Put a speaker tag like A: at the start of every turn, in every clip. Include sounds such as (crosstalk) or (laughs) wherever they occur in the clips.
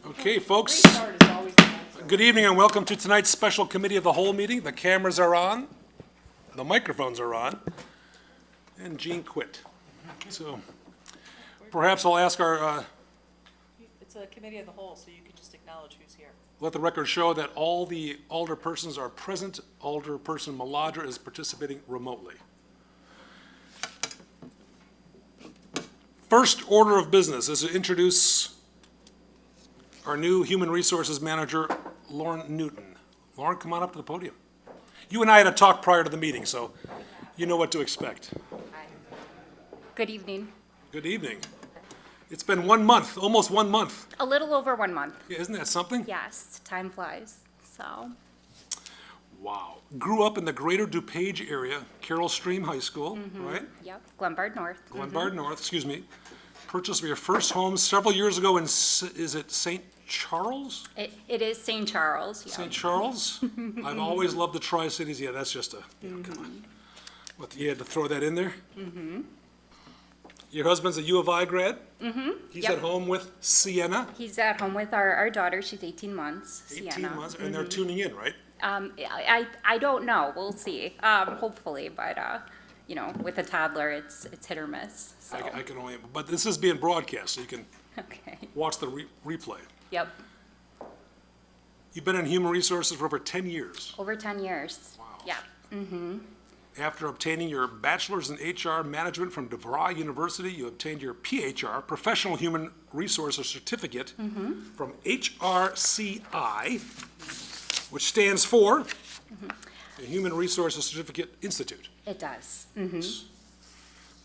A: folks.
B: Restart is always the answer.
A: Good evening and welcome to tonight's special committee of the whole meeting. The cameras are on, the microphones are on, and Gene quit. So perhaps I'll ask our, uh,
B: It's a committee of the whole, so you can just acknowledge who's here.
A: let the record show that all the alder persons are present. Alder person Maladra is participating remotely. First order of business is to introduce our new Human Resources Manager, Lauren Newton. Lauren, come on up to the podium. You and I had a talk prior to the meeting, so you know what to expect.
C: Good evening.
A: Good evening. It's been one month, almost one month.
C: A little over one month.
A: Yeah, Isn't that something?
C: Yes, time flies. So,
A: Wow. Grew up in the greater DuPage area, Carroll Stream High School,
C: Mm-hmm.
A: right?
C: yep, Glenbard North.
A: Glenbard North, excuse me. Purchased your first home several years ago in, S- is it St. Charles?
C: It, it is St. Charles. Yeah.
A: St.
C: (laughs)
A: Charles? I've always loved the Tri-Cities, yeah, that's just a, yeah, come on. What, you had to throw that in there?
C: Mm-hmm.
A: Your husband's a U of I grad? Mm-hmm. He's
C: Yep.
A: at home with Sienna,
C: He's at home with our, our daughter. She's 18 months.
A: 18
C: Sienna. Mm-hmm.
A: months, and they're tuning in, right?
C: Um, I, I I don't know. We'll see. Um, hopefully, but uh, you know, with a toddler, it's it's hit or miss. So
A: I ca- I can only, but this is being broadcast, so you can
C: (laughs) okay.
A: watch the re- replay.
C: Yep.
A: You've been in human resources for over 10 years.
C: Over 10 years.
A: Wow.
C: Yeah.
A: After obtaining your bachelor's in HR management from DeVry University, you obtained your PHR, Professional Human Resources Certificate, from HRCI, which stands for the Human Resources Certificate Institute.
C: It does. Mm.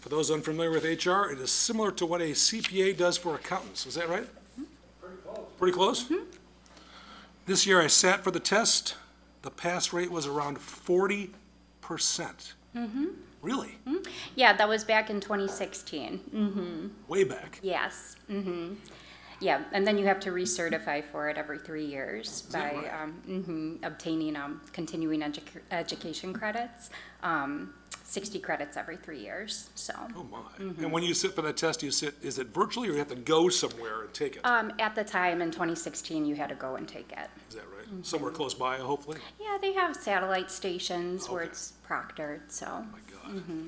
A: For those unfamiliar with HR, it is similar to what a CPA does for accountants, is that right? Pretty close. Pretty close? This year I sat for the test, the pass rate was around forty percent. Really?
C: Yeah, that was back in 2016.
A: Way back.
C: Yes. hmm
A: Mm-hmm.
C: Yeah, and then you have to recertify for it every three years by
A: that right?
C: um, mhm, obtaining um, continuing edu- education credits, um, 60 credits every three years. So
A: Oh my. And when you sit for that test, you sit, is it virtually or you have to go somewhere and take it?
C: um, at the time in 2016, you had to go and take it.
A: Is that right? Somewhere close by, hopefully?
C: Yeah, they have satellite stations where
A: Okay.
C: it's proctored. So
A: My God.
C: Mm-hmm.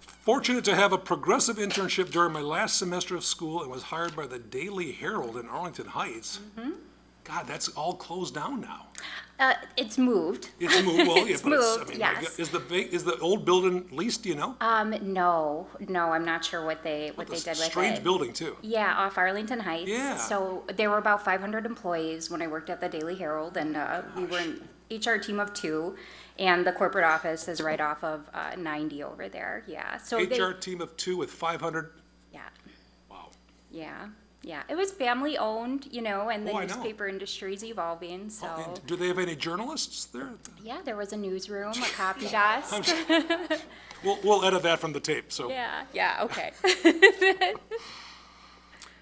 A: Fortunate to have a progressive internship during my last semester of school and was hired by the Daily Herald in Arlington Heights.
C: Mm-hmm.
A: God, that's all closed down now.
C: uh, it's moved.
A: It's moved,
C: (laughs)
A: well, yeah,
C: It's
A: but it's, I
C: moved,
A: mean, my
C: yes.
A: God, is the, va- is the old building leased, do you know?
C: Um, no, no, I'm not sure what they what they
A: It's
C: did
A: a
C: with
A: Strange
C: it.
A: building, too.
C: Yeah, off Arlington Heights.
A: Yeah.
C: So there were about 500 employees when I worked at the Daily Herald, and uh, we were an HR team of two, and the corporate office is right off of uh, 90 over there. Yeah. So they,
A: HR team of two with five hundred,
C: yeah,
A: wow.
C: yeah, yeah. It was family owned, you know, and the
A: Oh, I know.
C: newspaper industry is evolving. So
A: And do they have any journalists there?
C: yeah, there was a newsroom,
A: (laughs)
C: a copy desk.
A: We'll, we'll edit that from the tape, so.
C: yeah. Yeah.
A: (laughs)
C: Okay.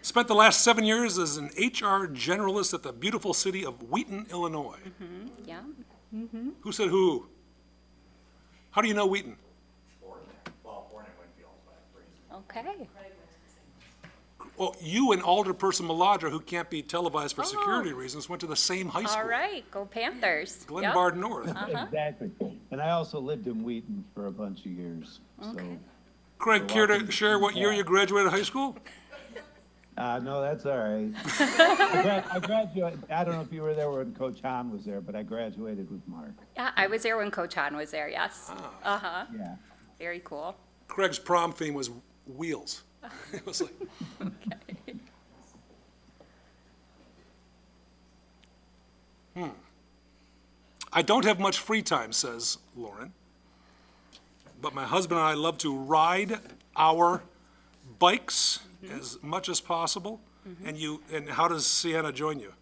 A: Spent the last seven years as an HR generalist at the beautiful city of Wheaton, Illinois.
C: yeah.
A: Who said who? How do you know Wheaton?
C: Okay.
A: Well, you and Alderperson Maladra, who can't be televised for security
C: Oh.
A: reasons, went to the same high school.
C: All right. Go Panthers. Yep.
A: Glenbard North.
D: Exactly. And I also lived in Wheaton for a bunch of years. So,
A: Craig, care to
D: Welcome.
A: share what year you graduated high school?
D: uh, no, that's all right. I, grad- I graduated, I don't know if you were there when Coach Hahn was there, but I graduated with Mark.
C: Yeah, I was there when Coach Han was there. Yes.
A: Ah.
C: Uh huh.
D: Yeah.
C: Very cool.
A: Craig's prom theme was wheels. (laughs) It was like. Hmm. I don't have much free time, says Lauren, but my husband and I love to ride our bikes as much as possible. And you, and how does Sienna join you?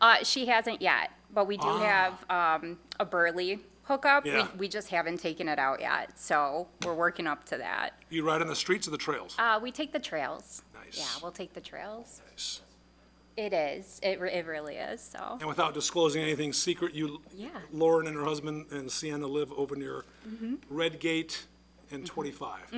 C: Uh, she hasn't yet, but we do have um, a Burley hookup.
A: Ah. Yeah.
C: We, we just haven't taken it out yet, so we're working up to that.
A: You ride on the streets or the trails?
C: Uh, we take the trails. Yeah,
A: Nice.
C: we'll take the trails. It is. It, re- it really is. So
A: And without disclosing anything secret, you,
C: Yeah.
A: Lauren and her husband and Sienna live over near Redgate and 25.